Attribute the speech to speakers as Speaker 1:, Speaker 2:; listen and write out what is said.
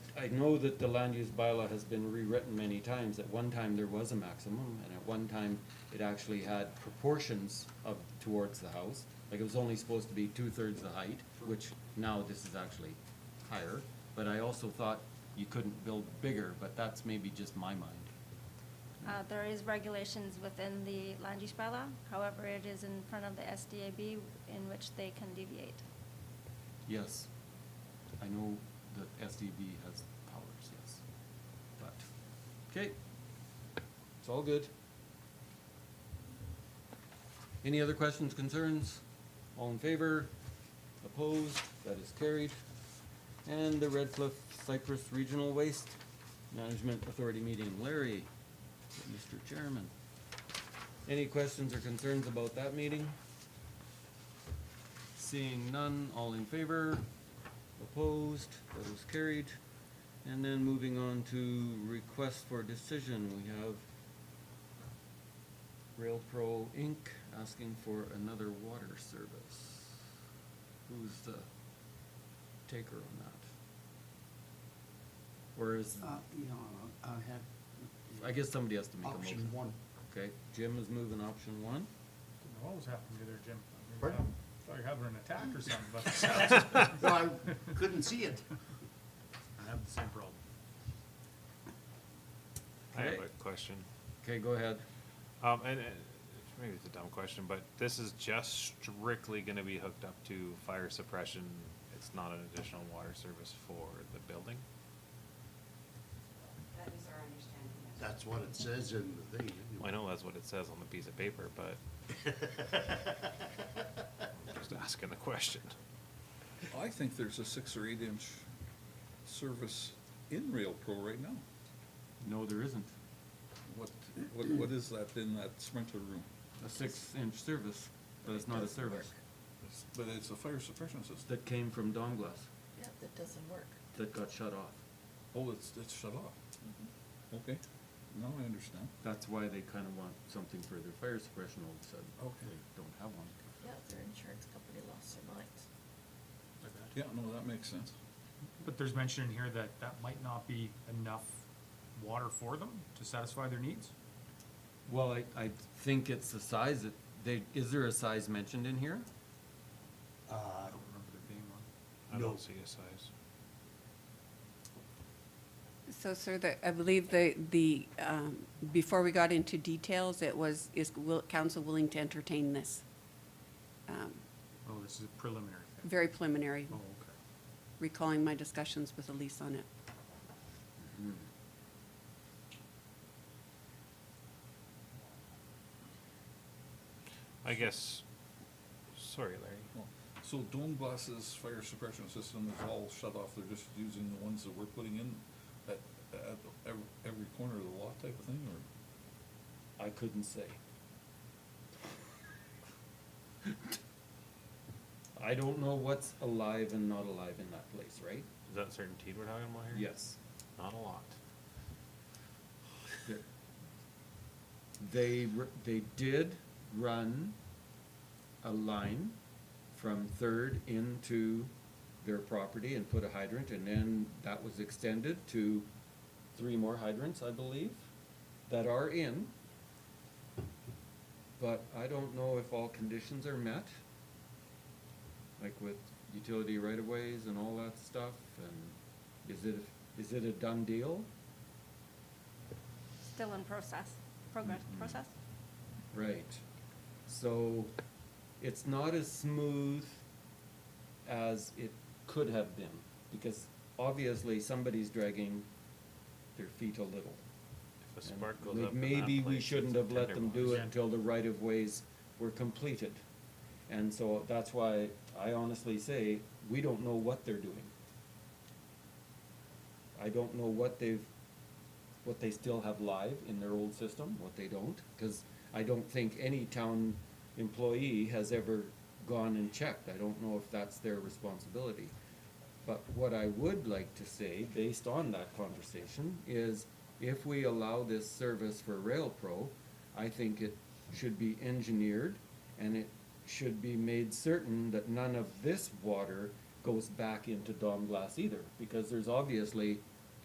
Speaker 1: I know that the land use bylaw has been rewritten many times. At one time, there was a maximum, and at one time, it actually had proportions of, towards the house. Like, it was only supposed to be two-thirds the height, which now this is actually higher. But I also thought you couldn't build bigger, but that's maybe just my mind.
Speaker 2: Uh, There is regulations within the land use bylaw, however, it is in front of the SDAB in which they can deviate.
Speaker 1: Yes, I know that SDB has powers, yes, but, okay, it's all good. Any other questions, concerns? All in favor? Opposed? That is carried. And the Red Cliff Cypress Regional Waste Management Authority meeting, Larry, Mr. Chairman. Any questions or concerns about that meeting? Seeing none, all in favor? Opposed? That was carried. And then moving on to request for decision, we have RailPro Inc. asking for another water service. Who's the taker on that? Or is,
Speaker 3: Uh, you know, I had.
Speaker 1: I guess somebody has to make a motion.
Speaker 3: Option one.
Speaker 1: Okay, Jim is moving option one.
Speaker 4: Don't know What was happening to their gym? I mean,
Speaker 3: Pardon?
Speaker 4: I Thought you were having an attack or something, but it sounds-
Speaker 3: No, I couldn't see it.
Speaker 4: I have the same problem.
Speaker 5: I have
Speaker 1: Okay.
Speaker 5: a question.
Speaker 1: Okay, go ahead.
Speaker 5: Um, and, and maybe it's a dumb question, but this is just strictly gonna be hooked up to fire suppression. It's not an additional water service for the building?
Speaker 6: That is our understanding, yes.
Speaker 3: That's what it says in the thing.
Speaker 5: Well, I know that's what it says on the piece of paper, but I'm just asking the question.
Speaker 7: I think there's a six or eight inch service in Rail Pro right now.
Speaker 1: No, there isn't.
Speaker 7: What, what, what is that in that sprinkler room?
Speaker 1: A six-inch service, but it's not a service.
Speaker 7: But it's a fire suppression system.
Speaker 1: that came from Donglass
Speaker 8: Yeah, that doesn't work.
Speaker 1: that got shut off.
Speaker 7: Oh, it's, it's shut off. Okay, now I understand.
Speaker 1: That's why they kind of want something for their fire suppression all of a sudden.
Speaker 7: Okay.
Speaker 1: They don't have one.
Speaker 8: Yeah, their insurance company lost their minds.
Speaker 7: Yeah, no, that makes sense.
Speaker 4: But there's mention in here that that might not be enough water for them to satisfy their needs?
Speaker 1: Well, I, I think it's the size that, they, is there a size mentioned in here?
Speaker 3: Uh,
Speaker 4: I don't remember there being one.
Speaker 5: I
Speaker 3: No.
Speaker 5: don't see a size.
Speaker 9: So, sir, the, I believe the, the, um, before we got into details, it was, is will, council willing to entertain this? Um,
Speaker 4: Oh, this is a preliminary thing.
Speaker 9: Very preliminary,
Speaker 4: Oh, okay.
Speaker 9: recalling my discussions with Elise on it.
Speaker 5: I guess, sorry, Larry.
Speaker 7: Well, So Donbass's fire suppression system is all shut off, they're just using the ones that we're putting in at, at every, every corner of the lot type of thing, or?
Speaker 1: I couldn't say. I don't know what's alive and not alive in that place, right?
Speaker 5: Is that certainty we're talking about here?
Speaker 1: Yes.
Speaker 5: Not a lot.
Speaker 1: They're- They, r- they did run a line from Third into their property and put a hydrant, and then that was extended to three more hydrants, I believe, that are in. But I don't know if all conditions are met, like with utility right-of-ways and all that stuff, and is it, is it a done deal?
Speaker 2: Still in process, progress,
Speaker 1: Mhm.
Speaker 2: process?
Speaker 1: Right. So it's not as smooth as it could have been because obviously somebody's dragging their feet a little.
Speaker 5: If a
Speaker 1: And
Speaker 5: spark goes
Speaker 1: we-
Speaker 5: up in that
Speaker 1: Maybe
Speaker 5: place,
Speaker 1: we
Speaker 5: it's
Speaker 1: shouldn't
Speaker 5: a
Speaker 1: have let them do it
Speaker 4: tenderloin.
Speaker 1: until the right of ways were completed. And so that's why I honestly say, we don't know what they're doing. I don't know what they've, what they still have live in their old system, what they don't, cause I don't think any town employee has ever gone and checked. I don't know if that's their responsibility. But what I would like to say, based on that conversation, is if we allow this service for RailPro, I think it should be engineered and it should be made certain that none of this water goes back into Don Glass either, because there's obviously